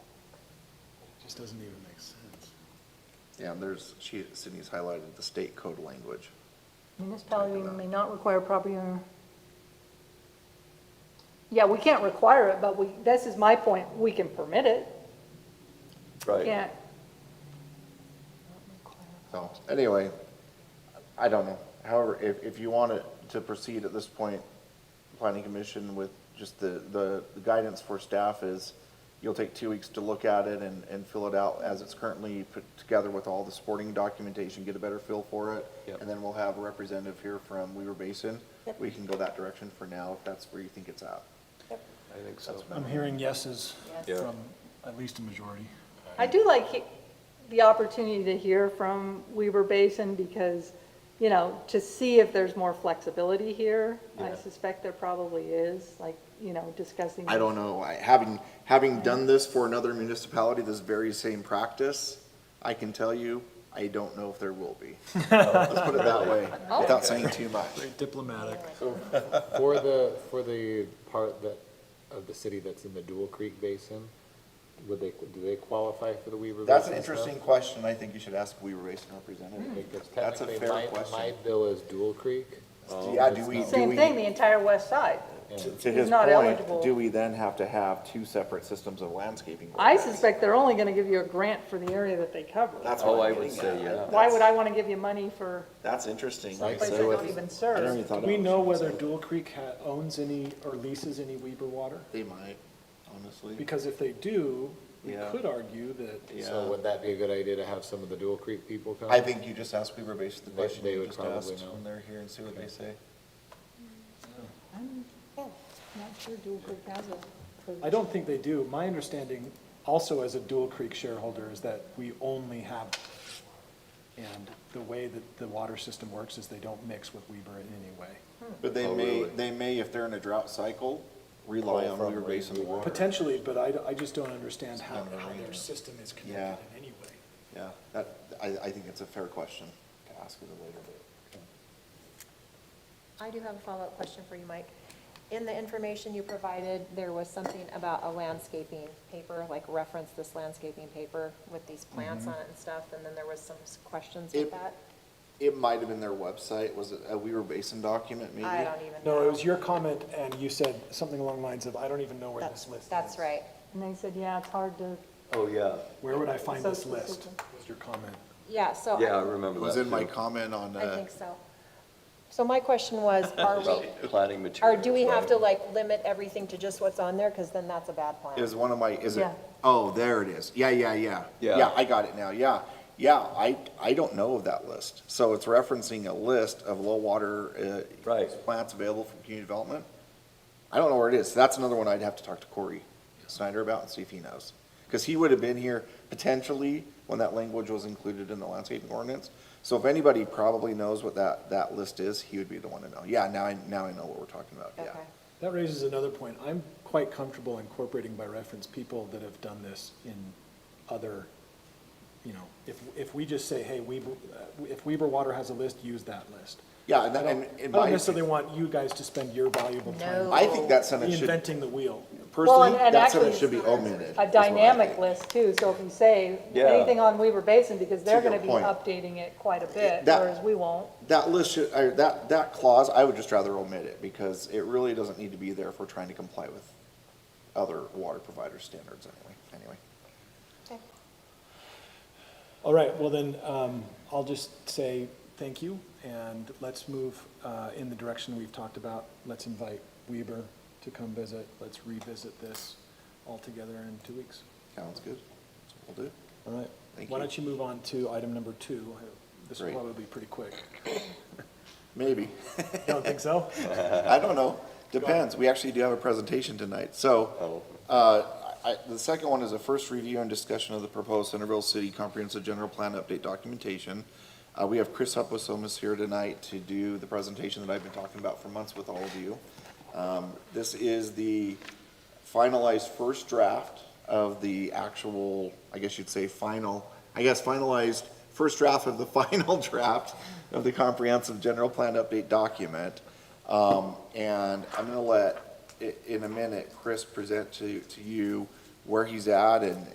just doesn't even make sense. Yeah, and there's, she, Sydney's highlighted the state code language. Municipality may not require property owner. Yeah, we can't require it, but we, this is my point, we can permit it, Right. yeah. So, anyway, I don't know. However, if, if you want it to proceed at this point, planning commission with just the, the the guidance for staff is you'll take two weeks to look at it and, and fill it out as it's currently put together with all the supporting documentation, get a better feel for it. Yep. And then we'll have a representative here from Weaver Basin. We can go that direction for now if that's where you think it's at. I think so. I'm hearing yeses Yeah. from at least a majority. I do like he- the opportunity to hear from Weaver Basin because, you know, to see if there's more flexibility here. I Yeah. suspect there probably is, like, you know, discussing. I don't know, I, having, having done this for another municipality, this very same practice, I can tell you, I don't know if there will be. Let's put it that way, Oh. without saying too much. Very diplomatic. For the, for the part that, of the city that's in the Dual Creek Basin, would they, do they qualify for the Weaver Basin? That's an stuff? interesting question, I think you should ask Weaver Basin Hmm. representative. Because That's a technically, fair my- question. My bill is Dual Creek. um, Yeah, do it's we, not- do Same we, thing, the entire west side. to- to He's his not eligible. point, do we then have to have two separate systems of landscaping? I ordinance? suspect they're only gonna give you a grant for the area that they cover. That's Oh, what I I'm would getting say, at. yeah. Why would I wanna give you money for That's interesting. Like, places that so don't if- even I never even serve? thought Do we about know it. whether Dual Creek ha- owns any or leases any Weber water? They might, honestly, Because if they do, we Yeah. could argue that yeah. So would that be a good idea to have some of the Dual Creek people come? I think you just ask Weaver Basin the They- question they you would just probably asked know. when they're here and see what they say. Not sure dual group has I don't think they do. My understanding, also as a Dual Creek shareholder, is that we only have, and the way that the water system works is they don't mix with Weber in any way. Hmm. But they Oh, may, really? they may, if they're in a drought cycle, rely Pull on from Weaver Basin Weaver. water. Potentially, but I, I just don't understand how, not how their related. system is Yeah. connected in any way. Yeah, that, I, I think it's a fair question to ask at a later date. I do have a follow-up question for you, Mike. In the information you provided, there was something about a landscaping paper, like reference this landscaping paper with these plants Mm-hmm. on it and stuff, and then there was some s- questions It- with that? It might have been their website, was it a Weaver Basin document maybe? I don't even know. No, it was your comment, and you said something along the lines of, I don't even know where this That's, list is. that's right. And they said, yeah, it's hard to Oh, yeah, Where would I find this Social list? system. Was your comment. Yeah, so yeah, I I, It remember that. was in my too. comment on, I uh, think so. So my question was, are we, About Planting or materials. do we have to right? like limit everything to just what's on there? Because then that's a bad plan. is one of my, is it? Yeah. Oh, there it is. Yeah, yeah, yeah. Yeah. Yeah, I got it now, yeah. Yeah, I, I don't know of that list. So it's referencing a list of low water, uh, Right. plants available for community development. I don't know where it is. So That's another one I'd have to talk to Corey Snyder about and see if he knows. Because he would have been here potentially when that language was included in the landscaping ordinance. So if anybody probably knows what that, that list is, he would be the one to know. Yeah, now I, now I know what we're talking about, yeah. Okay. That raises another point. I'm quite comfortable incorporating by reference people that have done this in other, you know, if, if we just say, hey, Weber, uh, if Weber Water has a list, use that list. Yeah, I and, that- don't and I in don't my, necessarily want you guys to spend your valuable time No. I think that sentence should, reinventing the wheel. personally, and- and that actually sentence should be it's omitted. is what a I dynamic think. list too, so if you say Yeah. anything on Weaver Basin, because they're your gonna be point. updating it quite a bit, that- whereas we won't. That list should, or that, that clause, I would just rather omit it because it really doesn't need to be there if we're trying to comply with other water provider standards anyway, anyway. Okay. All right, well then, um, I'll just say thank you, and let's move, uh, in the direction we've talked about. Let's invite Weber to come visit, let's revisit this altogether in two weeks. Sounds good. That's what we'll do. All right. Thank Why you. don't you move on to item number two? This will Great. probably be pretty quick. Maybe. Don't think so? I don't know. Depends. We actually do have a presentation tonight. So, uh, I, the second one is a first review and discussion of the proposed Centerville City Comprehensive General Plan Update documentation. Uh, we have Chris Hupusomas here tonight to do the presentation that I've been talking about for months with all of you. Um, this is the finalized first draft of the actual, I guess you'd say final, I guess finalized first draft of the final draft of the comprehensive general plan update document. Um, and I'm gonna let, i- in a minute, Chris present to, to you where he's at and,